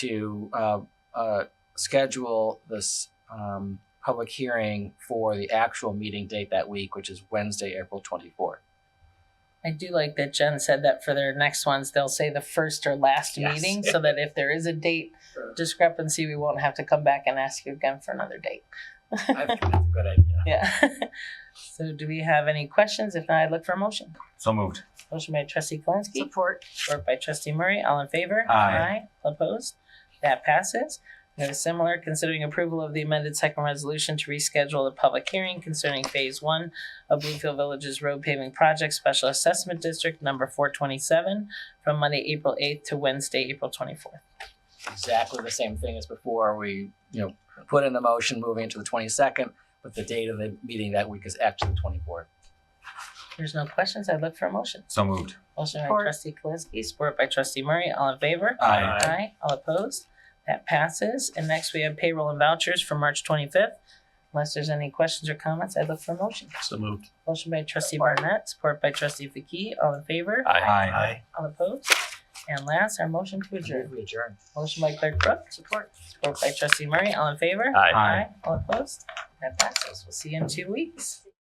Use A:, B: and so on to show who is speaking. A: to uh, uh, schedule this um, public hearing for the actual meeting date that week, which is Wednesday, April 24th.
B: I do like that Jen said that for their next ones, they'll say the first or last
A: Yes.
B: meeting so that if there is a date discrepancy, we won't have to come back and ask you again for another date.
A: I think that's a good idea.
B: Yeah. so, do we have any questions? If not, I'd look for a motion.
C: So moved.
B: Motion by Trustee Kalinsky,
D: Support.
B: support by Trustee Murray. All in favor?
C: Aye.
B: All Opposed? That passes. We have a similar considering approval of the amended second resolution to reschedule the public hearing concerning Phase One of Bluefield Village's road paving project special assessment district number four twenty-seven from Monday, April eighth to Wednesday, April twenty-fourth.
A: Exactly the same thing as before. We, you know, put in the motion moving it to the 22nd, but the date of the meeting that week is actually the 24th.
B: There's no questions. I'd look for a motion.
C: So moved.
B: Motion by
D: Support.
B: trustee Kalinsky, support by trustee Murray. All in favor?
C: Aye.
A: Aye.
B: All opposed? That passes. And next we have payroll and vouchers for March twenty-fifth. Unless there's any questions or comments, I'd look for a motion.
E: So moved.
B: Motion by trustee Barnett, support by trustee Faki. All in favor?
C: Aye.
B: All opposed? And last, our motion to adjourn.
A: We adjourn.
B: Motion by clerk Brooks,
D: Support.
B: support by trustee Murray. All in favor?
E: Aye.
B: All opposed? That passes. We'll see you in two weeks.